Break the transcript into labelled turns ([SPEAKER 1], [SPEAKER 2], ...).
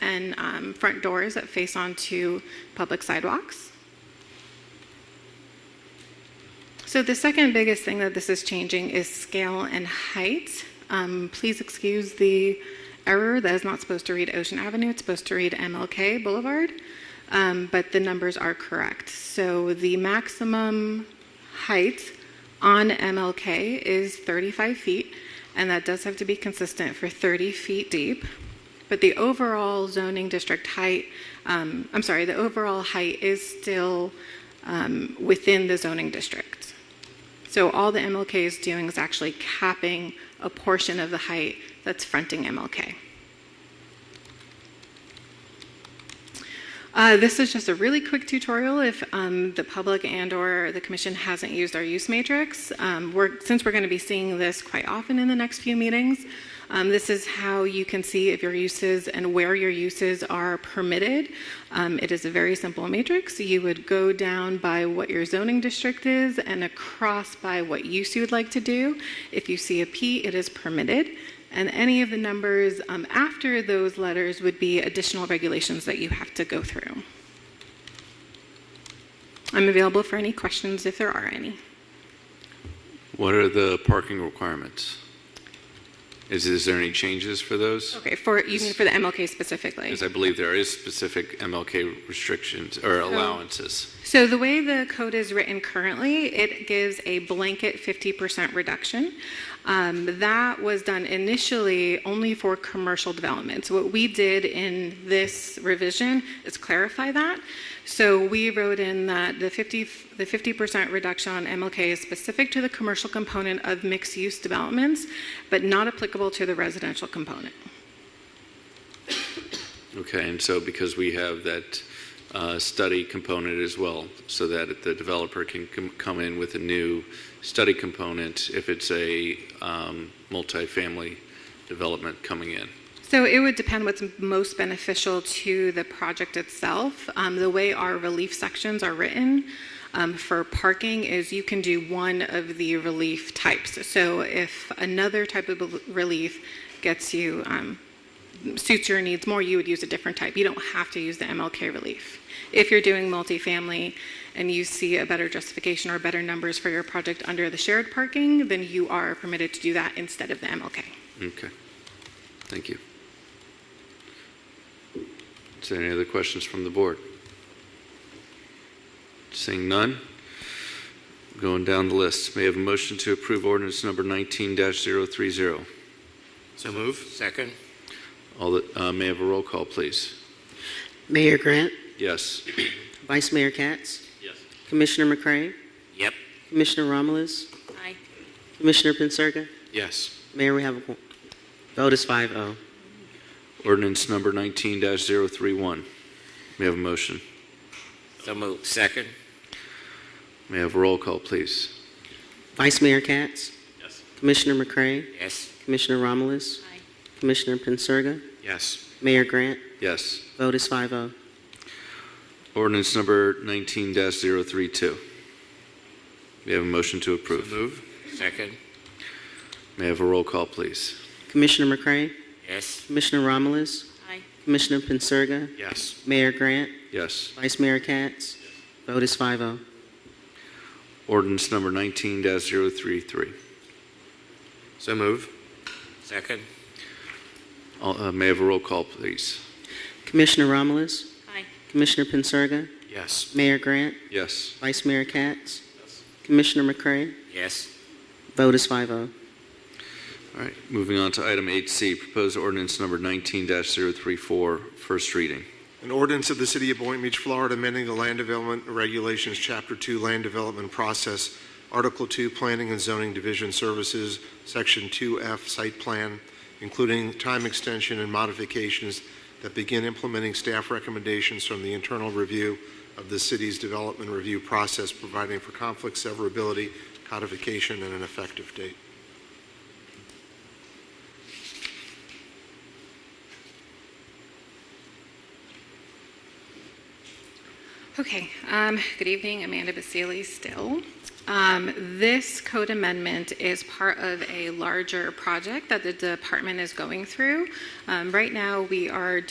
[SPEAKER 1] and um, front doors that face onto public sidewalks. So the second biggest thing that this is changing is scale and height. Um, please excuse the error. That is not supposed to read Ocean Avenue. It's supposed to read MLK Boulevard. Um, but the numbers are correct. So the maximum height on MLK is 35 feet, and that does have to be consistent for 30 feet deep. But the overall zoning district height, um, I'm sorry, the overall height is still um, within the zoning district. So all the MLK is doing is actually capping a portion of the height that's fronting MLK. Uh, this is just a really quick tutorial if um, the public and/or the commission hasn't used our use matrix. Um, we're, since we're going to be seeing this quite often in the next few meetings, um, this is how you can see if your uses and where your uses are permitted. Um, it is a very simple matrix. You would go down by what your zoning district is and across by what use you would like to do. If you see a P, it is permitted. And any of the numbers um, after those letters would be additional regulations that you have to go through. I'm available for any questions if there are any.
[SPEAKER 2] What are the parking requirements? Is, is there any changes for those?
[SPEAKER 1] Okay, for you mean for the MLK specifically?
[SPEAKER 2] Because I believe there is specific MLK restrictions or allowances.
[SPEAKER 1] So the way the code is written currently, it gives a blanket 50% reduction. Um, That was done initially only for commercial developments. What we did in this revision is clarify that. So we wrote in that the 50, f- the 50% reduction on MLK is specific to the commercial component of mixed-use developments, but not applicable to the residential component.
[SPEAKER 2] Okay, and so because we have that uh, study component as well, so that the developer can com- come in with a new study component if it's a um, multifamily development coming in.
[SPEAKER 1] So it would depend what's most beneficial to the project itself. Um, the way our relief sections are written um, for parking is you can do one of the relief types. So if another type of bel- relief gets you, um, suits your needs more, you would use a different type. You don't have to use the MLK relief. If you're doing multifamily and you see a better justification or better numbers for your project under the shared parking, then you are permitted to do that instead of the MLK.
[SPEAKER 2] Okay, thank you. Is there any other questions from the board? Seeing none, going down the list, may I have a motion to approve ordinance number 19-030.
[SPEAKER 3] So move. Second.
[SPEAKER 2] All the, uh, may I have a roll call, please?
[SPEAKER 4] Mayor Grant,
[SPEAKER 2] Yes.
[SPEAKER 4] Vice Mayor Katz,
[SPEAKER 3] Yes.
[SPEAKER 4] Commissioner McCray,
[SPEAKER 3] Yep.
[SPEAKER 4] Commissioner Romulus. Aye. Commissioner Pincirga.
[SPEAKER 2] Yes.
[SPEAKER 4] Mayor, we have a quorum. Vote is oh. 5-0.
[SPEAKER 2] Ordinance number 19-031. May I have a motion?
[SPEAKER 3] So move. Second.
[SPEAKER 2] May I have a roll call, please?
[SPEAKER 4] Vice Mayor Katz,
[SPEAKER 3] Yes.
[SPEAKER 4] Commissioner McCray,
[SPEAKER 3] Yes.
[SPEAKER 4] Commissioner Romulus. Aye. Commissioner Pincirga,
[SPEAKER 3] Yes.
[SPEAKER 4] Mayor Grant,
[SPEAKER 2] Yes.
[SPEAKER 4] vote is oh. 5-0.
[SPEAKER 2] Ordinance number 19-032. May I have a motion to
[SPEAKER 3] So
[SPEAKER 2] approve?
[SPEAKER 3] move. Second.
[SPEAKER 2] May I have a roll call, please?
[SPEAKER 4] Commissioner McCray,
[SPEAKER 3] Yes.
[SPEAKER 4] Commissioner Romulus. Aye. Commissioner Pincirga,
[SPEAKER 3] Yes.
[SPEAKER 4] Mayor Grant,
[SPEAKER 2] Yes.
[SPEAKER 4] Vice Mayor Katz, vote is oh. 5-0.
[SPEAKER 2] Ordinance number 19-033.
[SPEAKER 3] So move. Second.
[SPEAKER 2] All- uh, May I have a roll call, please?
[SPEAKER 4] Commissioner Romulus.
[SPEAKER 1] Aye.
[SPEAKER 4] Commissioner Pincirga,
[SPEAKER 3] Yes.
[SPEAKER 4] Mayor Grant,
[SPEAKER 2] Yes.
[SPEAKER 4] Vice Mayor Katz, Commissioner McCray,
[SPEAKER 3] Yes.
[SPEAKER 4] Vote is oh. 5-0.
[SPEAKER 2] All right, moving on to item 8C, proposed ordinance number 19-034, first reading.
[SPEAKER 5] An ordinance of the City of Boynton Beach, Florida, amending the Land Development Regulations, Chapter 2, Land Development Process, Article 2, Planning and Zoning Division Services, Section 2F, Site Plan, including time extension and modifications that begin implementing staff recommendations from the internal review of the city's development review process, providing for conflict severability, codification, and an effective date.
[SPEAKER 1] Okay, um, good evening, Amanda Basili still. Um, This code amendment is part of a larger project that the department is going through. Um, Right now, we are